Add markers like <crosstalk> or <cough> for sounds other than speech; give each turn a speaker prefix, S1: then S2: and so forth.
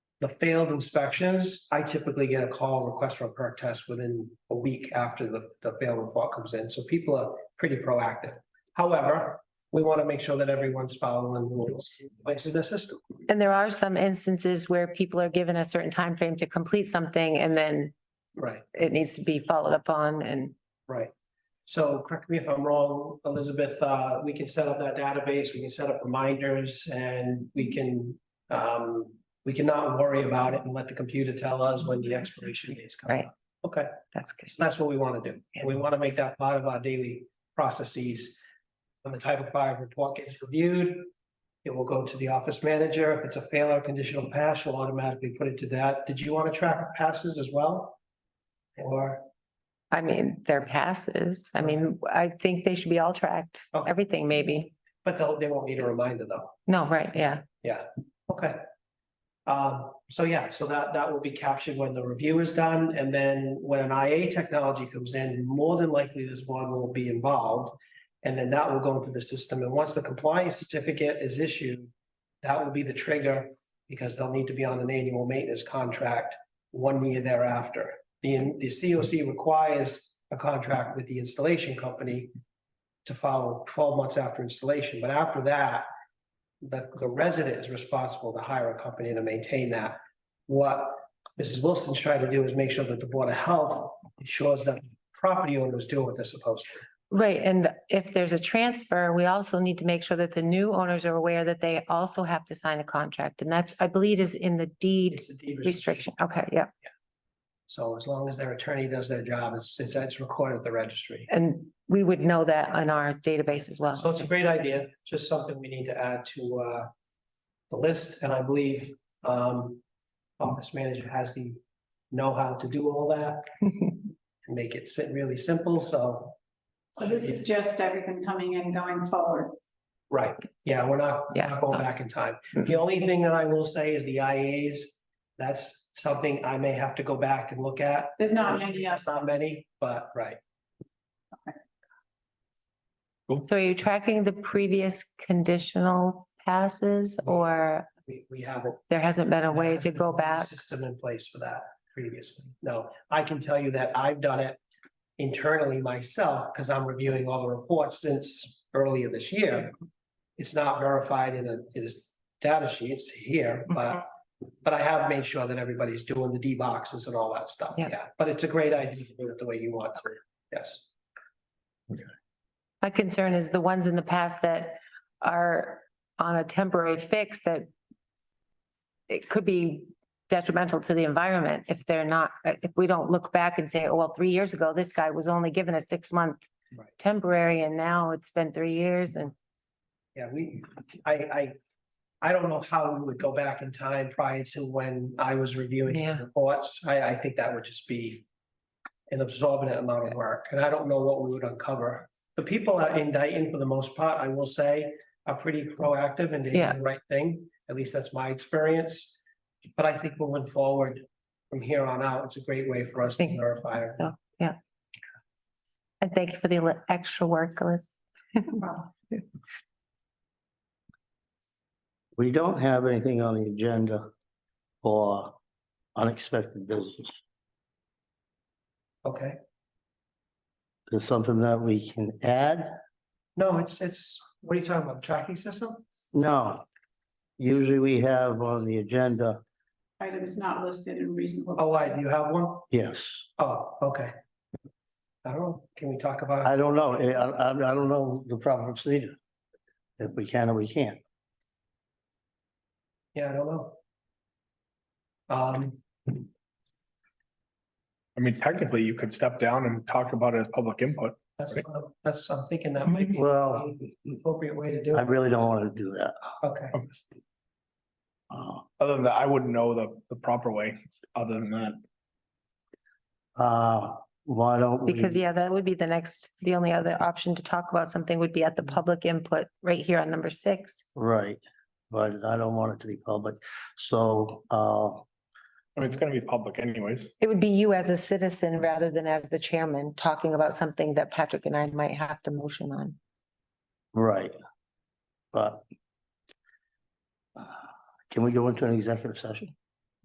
S1: the failed inspections, I typically get a call request for a perk test within a week after the, the failed report comes in. So people are pretty proactive. However, we want to make sure that everyone's following the rules, places in the system.
S2: And there are some instances where people are given a certain time frame to complete something and then
S1: Right,
S2: it needs to be followed up on and
S1: right. So correct me if I'm wrong, Elizabeth, uh, we can set up that database, we can set up reminders and we can, um, we cannot worry about it and let the computer tell us when the expiration date is coming up. Okay.
S2: that's good.
S1: So That's what we want to do. And we want to make that part of our daily processes. When the Title five report gets reviewed, it will go to the office manager. If it's a fail or conditional pass, you'll automatically put it to that. Did you want to track passes as well? Or,
S2: I mean, their passes. I mean, I think they should be all tracked,
S1: Okay.
S2: everything maybe.
S1: but they'll, they won't need a reminder though.
S2: No, right, yeah.
S1: Okay. Um, so yeah, so that, that will be captured when the review is done, and then when an IA technology comes in, more than likely this one will be involved. And then that will go into the system, and once the compliance certificate is issued, that will be the trigger, because they'll need to be on an annual maintenance contract one year thereafter. The, the COC requires a contract with the installation company to follow twelve months after installation, but after that, the, the resident is responsible to hire a company to maintain that. What Mrs. Wilson's trying to do is make sure that the Board of Health ensures that property owners do what they're supposed to.
S2: Right, and if there's a transfer, we also need to make sure that the new owners are aware that they also have to sign a contract. And that's, I believe, is in the deed
S1: It's a deed
S2: restriction. Okay, yeah.
S1: So as long as their attorney does their job, it's, it's, it's recorded at the registry.
S2: And we would know that on our database as well.
S1: So it's a great idea, just something we need to add to, uh, the list, and I believe, um, office manager has the know-how to do all that
S2: <laughs>
S1: and make it sit really simple, so
S3: So this is just everything coming in going forward.
S1: Right, yeah, we're not, we're
S2: Yeah.
S1: not going back in time.
S2: Mm.
S1: The only thing that I will say is the IAs. That's something I may have to go back and look at.
S3: There's not many of
S1: That's Not many, but right,
S2: So are you tracking the previous conditional passes or
S1: we, we haven't.
S2: there hasn't been a way
S1: there
S2: to
S1: hasn't
S2: go
S1: been a
S2: back?
S1: System in place for that previously. No, I can tell you that I've done it internally myself because I'm reviewing all the reports since earlier this year. It's not verified in a, in a data sheet, it's here,
S2: Mm-hmm.
S1: but, but I have made sure that everybody's doing the D boxes and all that stuff,
S2: Yeah.
S1: yeah. But it's a great idea to do it the way you want to, yes.
S2: My concern is the ones in the past that are on a temporary fix that it could be detrimental to the environment if they're not, if we don't look back and say, oh, well, three years ago, this guy was only given a six month
S1: Right.
S2: temporary and now it's been three years and
S1: Yeah, we, I, I, I don't know how we would go back in time prior to when I was reviewing the
S2: Yeah.
S1: reports. I, I think that would just be an absorbent amount of work, and I don't know what we would uncover. The people at- in Dayton, for the most part, I will say, are pretty proactive and they do
S2: Yeah.
S1: the right thing. At least that's my experience. But I think moving forward from here on out, it's a great way for us to
S2: Thank you.
S1: verify. our
S2: so, yeah. And thank you for the li- extra work, Elizabeth.
S3: them.
S4: We don't have anything on the agenda for unexpected business.
S1: Okay,
S4: There's something that we can add?
S1: no, it's, it's, what are you talking about, tracking system?
S4: No. Usually we have on the agenda,
S3: Items not listed in reasonable.
S1: Oh, I, do you have one?
S4: yes.
S1: Oh, okay. I don't, know. can we talk about,
S4: I
S1: it?
S4: don't know, I, I, I don't know the proper procedure. If we can or we can't.
S1: yeah, I don't know. Um,
S5: I mean, technically, you could step down and talk about it as public input.
S1: that's, what I'm- that's, I'm thinking that might be.
S4: Well-
S1: the Appropriate way to do
S4: I
S1: it,
S4: really don't want to do that.
S1: okay,
S4: Uh,
S5: Other than that, I wouldn't know the, the proper way, other than that.
S4: Uh, why don't we?
S2: Because, yeah, that would be the next, the only other option to talk about something would be at the public input right here on number six.
S4: Right, but I don't want it to be public, so, uh,
S5: I mean, it's gonna be public anyways.
S2: It would be you as a citizen rather than as the chairman talking about something that Patrick and I might have to motion on.
S4: Right. But. uh, Can we go into an executive session?